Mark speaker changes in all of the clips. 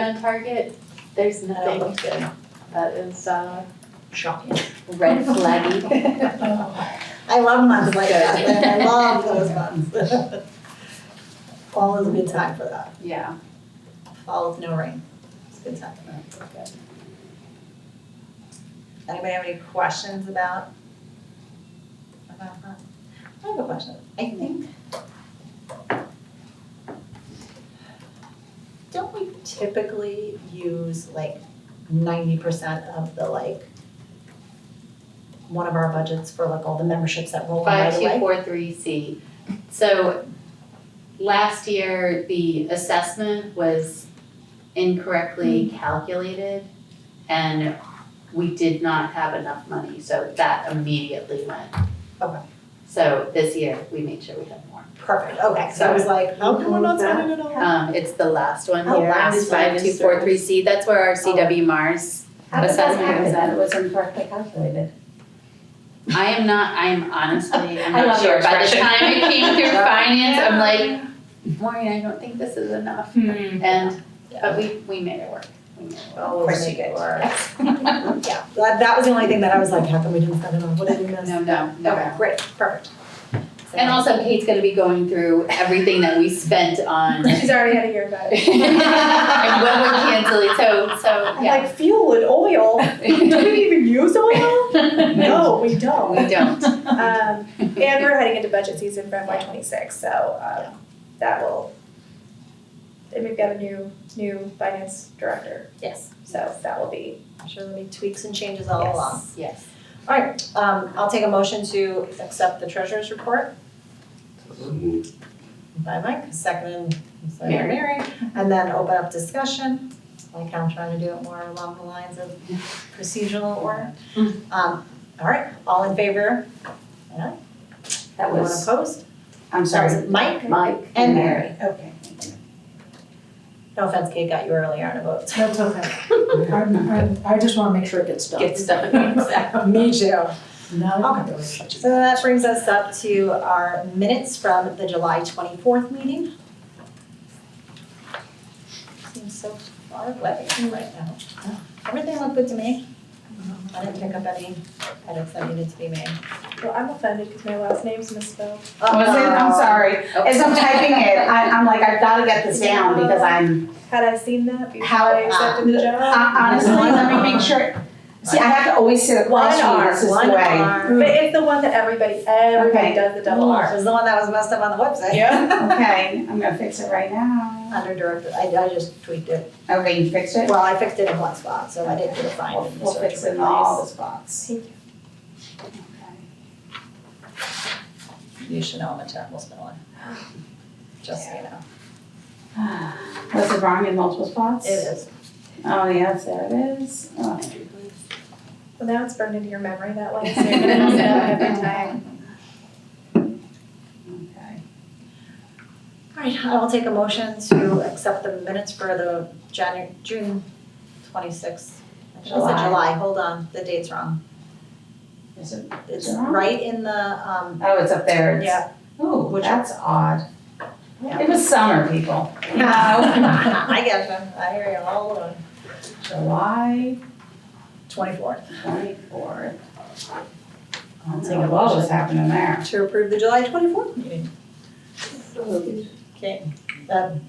Speaker 1: On Target, there's
Speaker 2: That
Speaker 1: nothing
Speaker 2: looked good.
Speaker 1: that is uh
Speaker 2: Shocking.
Speaker 1: red flaggy.
Speaker 3: I love months like that, and I love those months. Fall is a good time for that,
Speaker 1: Yeah.
Speaker 3: fall with no rain, it's a good time. Anybody have any questions about? About that? I have a question, I think. Don't we typically use like ninety percent of the like one of our budgets for like all the memberships that roll in right
Speaker 1: Five
Speaker 3: away?
Speaker 1: two four three C. So last year, the assessment was incorrectly calculated and we did not have enough money, so that immediately went.
Speaker 3: Okay.
Speaker 1: So this year, we made sure we had more.
Speaker 3: Perfect, okay, so I was like, how come we're not spending it all?
Speaker 1: Um, it's the last one
Speaker 3: Oh,
Speaker 1: here,
Speaker 3: last
Speaker 1: it's five two four three C, that's where our CW Mars
Speaker 2: How did that
Speaker 1: assessment was at.
Speaker 2: happen? That it was incorrectly calculated.
Speaker 1: I am not, I am honestly, I'm
Speaker 2: I
Speaker 1: not
Speaker 2: love your
Speaker 1: sure, by the
Speaker 2: expression.
Speaker 1: time it came through
Speaker 3: Yeah.
Speaker 1: finance, I'm like, Maureen, I don't think this is enough.
Speaker 2: Mm-hmm.
Speaker 1: And,
Speaker 3: Yeah.
Speaker 1: but we, we made it work, we made it work.
Speaker 3: Of course you get.
Speaker 2: Always
Speaker 3: Yeah, that, that was the only thing that I was like, how come we didn't spend it all, what did we miss?
Speaker 1: No, no,
Speaker 3: Okay,
Speaker 1: no.
Speaker 3: great, perfect.
Speaker 1: And also Kate's gonna be going through everything that we spent on. And
Speaker 4: She's already had a year about it.
Speaker 1: when we're canceling, so, so,
Speaker 4: I'm
Speaker 1: yeah.
Speaker 4: like fuel and oil. Do we even use oil? No, we
Speaker 1: We
Speaker 4: don't.
Speaker 1: don't.
Speaker 4: Um, and we're heading into budget season for FY twenty-six, so um, that will. And we've got a new new finance director,
Speaker 3: Yes,
Speaker 4: so that will be
Speaker 3: I'm sure there'll be tweaks and changes all
Speaker 4: Yes.
Speaker 3: along.
Speaker 1: Yes.
Speaker 3: Alright, um, I'll take a motion to accept the treasurer's report by Mike, second, by
Speaker 1: Mary.
Speaker 3: Mary, and then open up discussion. Like how I'm trying to do it more along the lines of procedural order. Um, alright, all in favor? Yeah,
Speaker 2: That
Speaker 3: anyone
Speaker 2: was,
Speaker 3: opposed?
Speaker 2: I'm
Speaker 3: Sorry, is
Speaker 2: sorry,
Speaker 3: it Mike?
Speaker 2: Mike
Speaker 3: And
Speaker 2: and
Speaker 3: Mary.
Speaker 2: Mary.
Speaker 3: Okay. No offense, Kate got you earlier on a vote.
Speaker 5: That's okay. I'm, I'm, I just wanna make sure it gets done.
Speaker 3: Get stuff done. Me too.
Speaker 5: No.
Speaker 3: So that brings us up to our minutes from the July twenty-fourth meeting. Seems so far away right now. Everything looked good to me. I didn't pick up any edits that needed to be made.
Speaker 4: well. I'm offended because my last name's misspelled.
Speaker 3: Oh,
Speaker 2: Was it? I'm sorry. As I'm typing it, I, I'm like, I've gotta get this down because I'm,
Speaker 4: Had I seen that before
Speaker 2: How-
Speaker 4: I accepted the job?
Speaker 2: hon- honestly, let me make sure. See, I have to always sit across
Speaker 3: One
Speaker 2: from you,
Speaker 3: R,
Speaker 2: this is the
Speaker 3: one
Speaker 2: way.
Speaker 3: R.
Speaker 4: but it's the one that everybody everybody
Speaker 2: Okay.
Speaker 4: does the double
Speaker 3: Double R
Speaker 4: R.
Speaker 3: was the one that was messed up on the website.
Speaker 4: Yeah.
Speaker 2: Okay, I'm gonna fix it right now.
Speaker 3: Under directed, I, I just tweaked it.
Speaker 2: Okay, you fixed it?
Speaker 3: Well, I fixed it in one spot, so I didn't do a find
Speaker 2: We'll
Speaker 3: in the
Speaker 2: we'll
Speaker 3: search
Speaker 2: fix it in all
Speaker 3: replace.
Speaker 2: the spots.
Speaker 4: Thank you.
Speaker 3: You should know I'm a terrible speller. Just so you know.
Speaker 2: Was it wrong in multiple spots?
Speaker 3: is.
Speaker 2: Oh, yes, there it is. Oh.
Speaker 4: Well, now it's burned into your memory that way, so you're gonna mess it up every time.
Speaker 2: Okay.
Speaker 3: All right, I will take a motion to accept the minutes for the Janu- June twenty-sixth. I should have said
Speaker 2: July.
Speaker 3: July, hold on, the date's wrong.
Speaker 2: Is it,
Speaker 3: It's
Speaker 2: July?
Speaker 3: right in the, um,
Speaker 2: oh, it's up there. It's-
Speaker 3: yeah.
Speaker 2: Ooh,
Speaker 3: Which-
Speaker 2: that's odd.
Speaker 3: Yeah.
Speaker 2: It was summer, people.
Speaker 3: I get you, I hear you, hold on.
Speaker 2: July
Speaker 3: Twenty-fourth.
Speaker 2: twenty-fourth. I don't
Speaker 3: Take
Speaker 2: know
Speaker 3: a
Speaker 2: what was
Speaker 3: motion.
Speaker 2: happening there.
Speaker 3: To approve the July twenty-fourth meeting. Okay, um,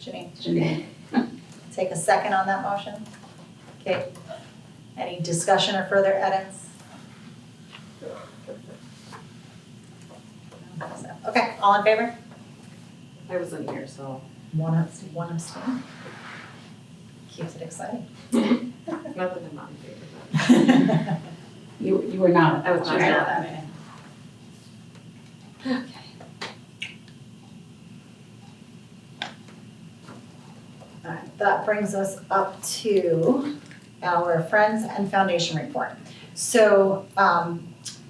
Speaker 3: Janine,
Speaker 2: Janine.
Speaker 3: take a second on that motion. Okay, any discussion or further edits? So, Okay, all in favor?
Speaker 6: I wasn't here, so
Speaker 3: One abs- one abstain. Keeps it exciting.
Speaker 6: not that I'm not in favor, but
Speaker 2: You, you were not.
Speaker 6: I was not
Speaker 2: you were
Speaker 6: at
Speaker 2: not.
Speaker 6: that meeting.
Speaker 3: Alright, that brings us up to our Friends and Foundation report. So, um,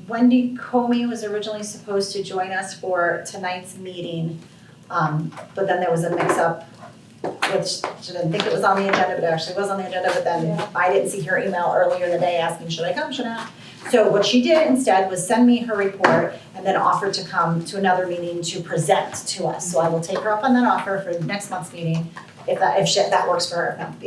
Speaker 3: Wendy Comey was originally supposed to join us for tonight's meeting. Um, but then there was a mix-up, which she didn't think it was on the agenda, but it actually was on the agenda, but then I didn't see her email earlier in the day asking, should I come, should I? not?" So what she did instead was send me her report and then offered to come to another meeting to present to us. So I will take her up on that offer for next month's meeting if that, if she- that works for her, if not, yeah.